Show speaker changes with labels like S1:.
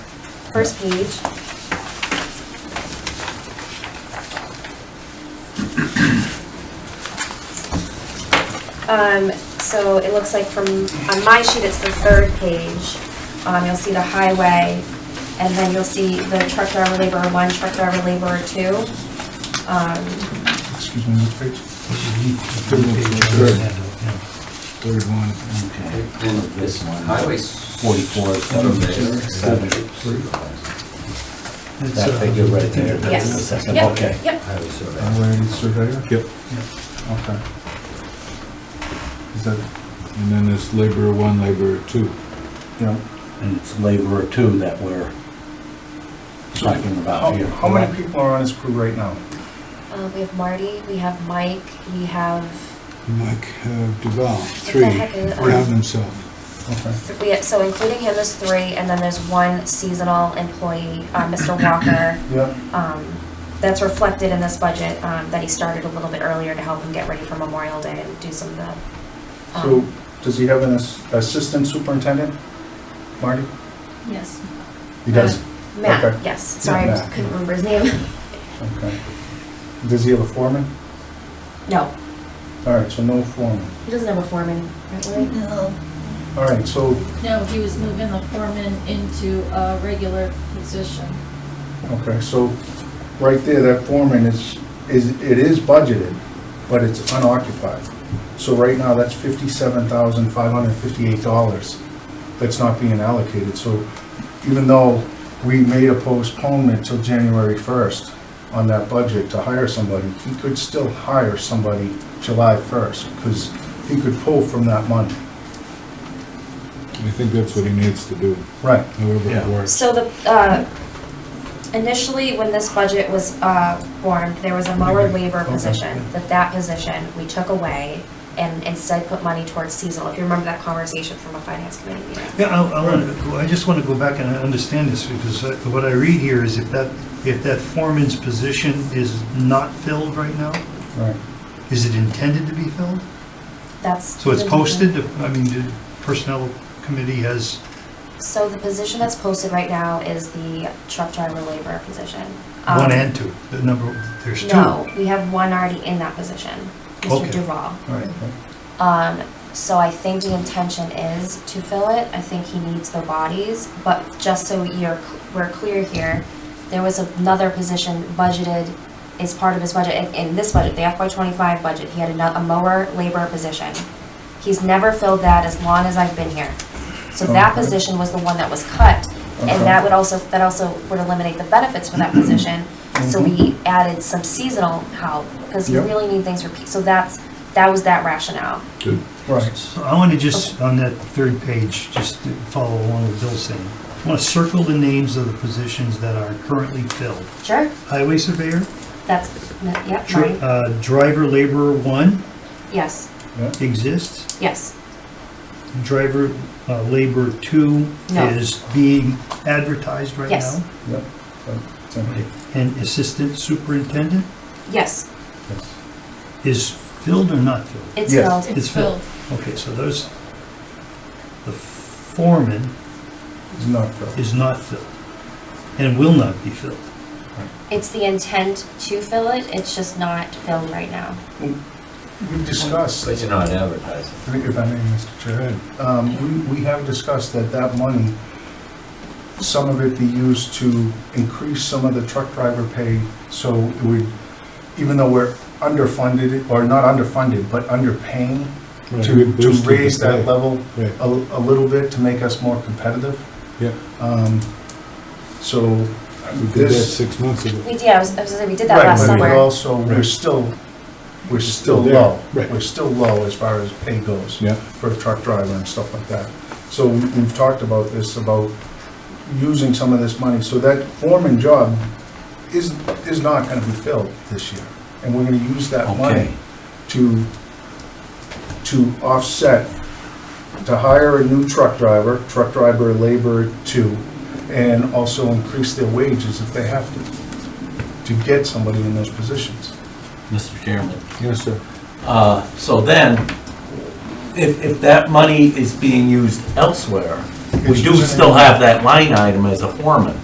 S1: first page. Um, so it looks like from, on my sheet, it's the third page. Um, you'll see the highway, and then you'll see the truck driver laborer one, truck driver laborer two. Um,
S2: Excuse me, what page? Third one.
S3: This one,
S4: Highway
S3: highway forty-four, seven, seven. That figure right there, that's the
S1: Yes.
S3: second,
S1: Yep,
S3: okay.
S1: Yep,
S4: Highway survey.
S2: Highway surveyor? Yep. Okay. Is that, and then there's laborer one, laborer two.
S3: Yeah. And it's laborer two that we're talking about
S5: How
S3: here.
S5: Oh, how many
S3: correct?
S5: people are on this crew right now?
S1: Uh, we have Marty, we have Mike, we have,
S2: Mike uh, Duval,
S1: the
S2: three,
S1: heck
S5: uh,
S1: is-
S2: count himself.
S5: Okay.
S1: th- we have, so including him is three, and then there's one seasonal employee, uh, Mr. Walker.
S5: Yeah.
S1: Um, that's reflected in this budget, um, that he started a little bit earlier to help him get ready for Memorial Day and do some of the.
S5: So
S1: um,
S5: does he have an ass- assistant superintendent, Marty?
S6: Yes.
S5: He does? okay.
S1: Matt, yes, sorry, I
S5: Matt.
S1: couldn't remember his name.
S5: Okay. Does he have a foreman?
S1: No,
S5: All right, so no foreman.
S1: he doesn't have a foreman, right, Lori?
S6: No,
S5: All right, so,
S6: no, he was moving the foreman into a regular position.
S5: okay, so right there, that foreman is, is, it is budgeted, but it's unoccupied. So right now, that's fifty-seven thousand, five hundred and fifty-eight dollars that's not being allocated. So even though we made a postponement till January first on that budget to hire somebody, he could still hire somebody July first, because he could pull from that money.
S2: I think that's what he needs to do,
S5: Right.
S2: however it
S3: Yeah.
S2: works.
S1: So the, uh, initially, when this budget was uh, formed, there was a mower labor
S5: Okay.
S1: position, that that position we took away and instead put money towards seasonal, if you remember that conversation from a finance committee meeting.
S7: Yeah, I, I want to, I just want to go back and I understand this, because uh, what I read here is if that, if that foreman's position is not filled right now,
S5: Right.
S7: is it intended to be filled?
S1: That's.
S7: So it's
S1: the-
S7: posted, I mean, the personnel committee has,
S1: So the position that's posted right now is the truck driver laborer position. Um,
S7: One and two, the number, there's two.
S1: No, we have one already in that position, Mr.
S7: Okay.
S1: Duval.
S7: All right.
S1: Um, so I think the intention is to fill it, I think he needs the bodies, but just so you're, we're clear here, there was another position budgeted as part of his budget, in, in this budget, the FY twenty-five budget, he had ano- a mower laborer position. He's never filled that as long as I've been here. So that
S5: Okay.
S1: position was the one that was cut, and that would also, that also would eliminate the benefits for that position. So we added some seasonal help, because you
S5: Mm-hmm. Yep.
S1: really need things for, pe- so that's, that was that rationale.
S2: Good.
S5: Right.
S7: So I want to just, on that third page, just to follow along with Bill's saying, I want to circle the names of the positions that are currently filled.
S1: Sure,
S7: Highway surveyor,
S1: that's, yep,
S7: dri-
S1: mine.
S7: uh, driver laborer one
S1: yes,
S5: Yeah.
S7: exists.
S1: yes,
S7: driver uh, labor two
S1: No.
S7: is being advertised right now?
S1: Yes.
S5: Yep. That's okay.
S7: And assistant superintendent
S1: yes,
S5: Yes.
S7: is filled or not filled?
S1: it's
S5: Yes.
S1: filled,
S7: It's filled. Okay, so those, the foreman
S5: It's not filled.
S7: is not filled and will not be filled.
S1: it's the intent to fill it, it's just not filled right now.
S5: We discussed,
S4: But you're not advertising.
S5: I think if I may, Mr. Chair, um, we, we have discussed that that money, some of it be used to increase some of the truck driver pay, so it would, even though we're underfunded, or not underfunded, but underpaying,
S2: Right, we
S5: to, to
S2: boosted the
S5: raise
S2: pay.
S5: that level
S2: Right,
S5: a, a little bit to make us more competitive.
S2: yeah,
S5: Um, So
S2: we did that
S5: this.
S2: six months ago.
S1: We, yeah, I was, I was gonna say, we did that
S5: Right,
S1: last
S5: but we
S1: summer.
S5: also, we're
S2: Right.
S5: still, we're still
S2: there,
S5: low.
S2: right.
S5: We're still low as far as pay goes
S2: Yeah,
S5: for a truck driver and stuff like that. So we- we've talked about this, about using some of this money. So that foreman job is, is not gonna be filled this year. And we're gonna use that money
S3: Okay,
S5: to, to offset, to hire a new truck driver, truck driver labor two, and also increase their wages if they have to, to get somebody in those positions.
S3: Mr. Chairman.
S2: yes, sir.
S3: Uh, So then, if, if that money is being used elsewhere, we do still have that line item as a foreman.